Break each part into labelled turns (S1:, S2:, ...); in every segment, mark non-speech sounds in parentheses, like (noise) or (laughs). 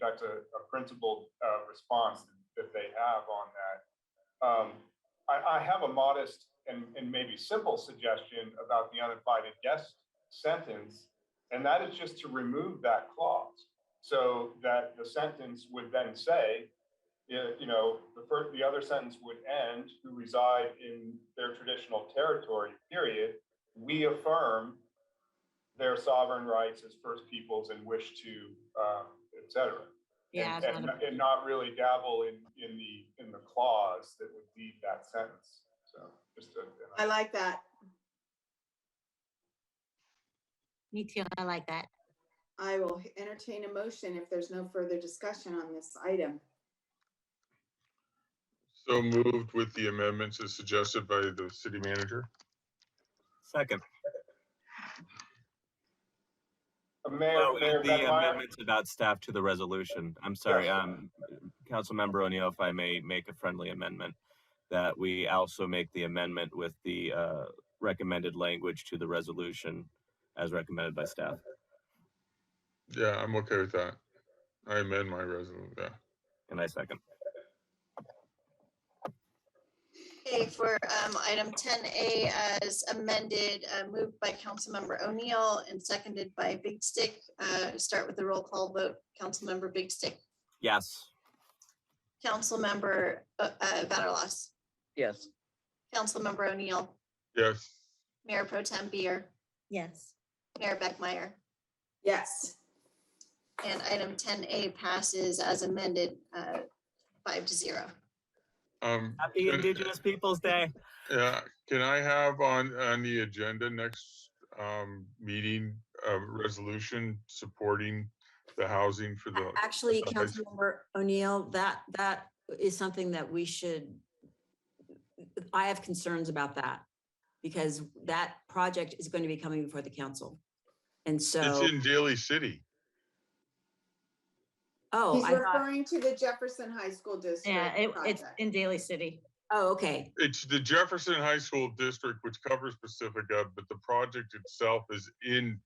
S1: that's a, a principled, uh, response that they have on that. Um, I, I have a modest and, and maybe simple suggestion about the uninvited guest sentence, and that is just to remove that clause. So that the sentence would then say, yeah, you know, the first, the other sentence would end, who reside in their traditional territory, period. We affirm their sovereign rights as first peoples and wish to, um, et cetera.
S2: Yeah,
S1: And, uh,
S2: it's
S1: and,
S2: not
S1: and not really dabble in, in the, in the clause that would lead that sentence. So just a.
S3: I like that.
S2: a- me too, I like that.
S3: I will h- entertain a motion if there's no further discussion on this item.
S4: So moved with the amendments as suggested by the city manager.
S5: Second.
S1: Uh, Mayor,
S5: Oh,
S1: Mayor
S5: and the
S1: Bettmeyer,
S5: amendments about staff to the resolution. I'm sorry,
S1: Yes.
S5: um, Councilmember O'Neill, if I may make a friendly amendment, that we also make the amendment with the, uh, recommended language to the resolution as recommended by staff.
S4: Yeah, I'm okay with that. I amend my resolution, yeah.
S5: And I second.
S6: Okay, for um, item 10A as amended, uh, moved by Councilmember O'Neill and seconded by Big Stick. Uh, Start with the roll call vote. Councilmember Big Stick,
S5: Yes.
S6: Councilmember uh, uh, Vatterlas,
S7: yes,
S6: Councilmember O'Neill,
S4: Yes,
S6: Mayor Pro Tem Beer,
S2: Yes.
S6: Mayor Beckmeyer.
S3: Yes,
S6: And item 10A passes as amended, uh, five to zero.
S4: um,
S5: Happy Indigenous Peoples' Day.
S4: yeah, can I have on, on the agenda next, um, meeting, uh, resolution supporting the housing for the,
S8: Actually,
S4: Okay.
S8: Councilmember O'Neill, that, that is something that we should, I have concerns about that because that project is going to be coming before the council. And
S4: it's
S8: so,
S4: in Daly City.
S8: oh,
S3: he's
S8: I thought,
S3: referring to the Jefferson High School District.
S2: Oh, Yeah, it, it's
S3: project.
S2: in Daly City.
S8: oh, okay.
S4: It's the Jefferson High School District, which covers Pacifica, but the project itself is in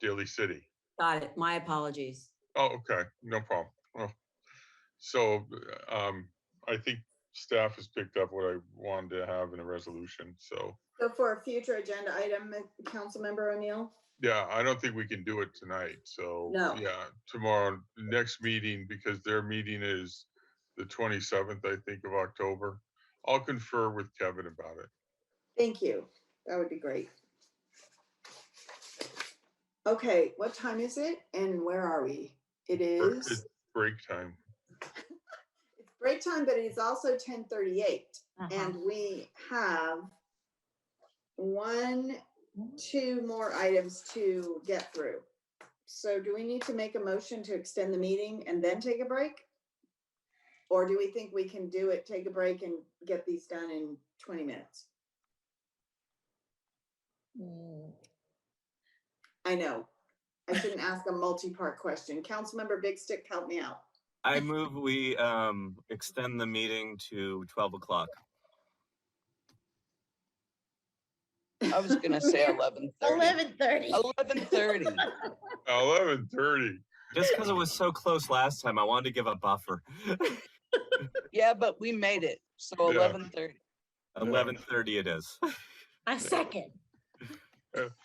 S4: Daly City.
S8: Got it. My apologies.
S4: Oh, okay, no problem. Well, So um, I think staff has picked up what I wanted to have in a resolution. So,
S3: So for a future agenda item, uh, Councilmember O'Neill?
S4: yeah, I don't think we can do it tonight. So,
S3: No.
S4: yeah, tomorrow, next meeting, because their meeting is the 27th, I think, of October. I'll confer with Kevin about it.
S3: Thank you. That would be great. Okay, what time is it and where are we? It
S4: Break-
S3: is,
S4: It's break time.
S3: it's break time, but it is also ten thirty-eight.
S2: Uh-huh.
S3: And we have one, two more items to get through. So do we need to make a motion to extend the meeting and then take a break? Or do we think we can do it, take a break and get these done in twenty minutes? I know. I shouldn't ask a multi-part question. Councilmember Big Stick, help me out.
S5: I move we, um, extend the meeting to twelve o'clock.
S7: I was gonna say eleven thirty.
S6: thirty.
S7: Eleven thirty,
S4: 11:30.
S5: Just because it was so close last time, I wanted to give a buffer.
S7: yeah, but we made it, so
S4: Yeah.
S7: eleven thirty.
S5: Eleven thirty it is.
S2: A second.
S4: (laughs)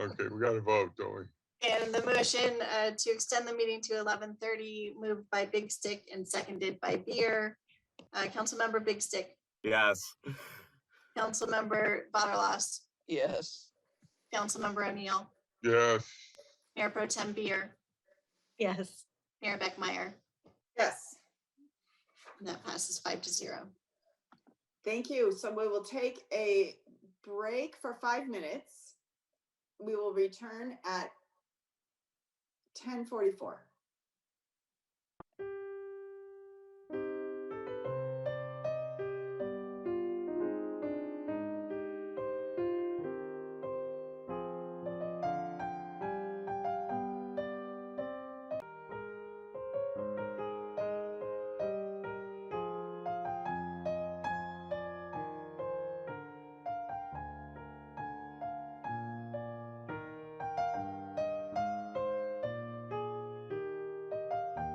S4: Okay, we got to vote, don't we?
S6: And the motion uh, to extend the meeting to eleven thirty, moved by Big Stick and seconded by Beer. Uh, Councilmember Big Stick,
S5: Yes.
S6: Councilmember Butterlos,
S7: Yes,
S6: Councilmember O'Neill,
S4: Yes,
S6: Mayor Pro Tem Beer,
S2: Yes.
S6: Mayor Beckmeyer.
S3: Yes.
S6: And that passes five to zero.
S3: Thank you. So we will take a break for five minutes. We will return at ten forty-four.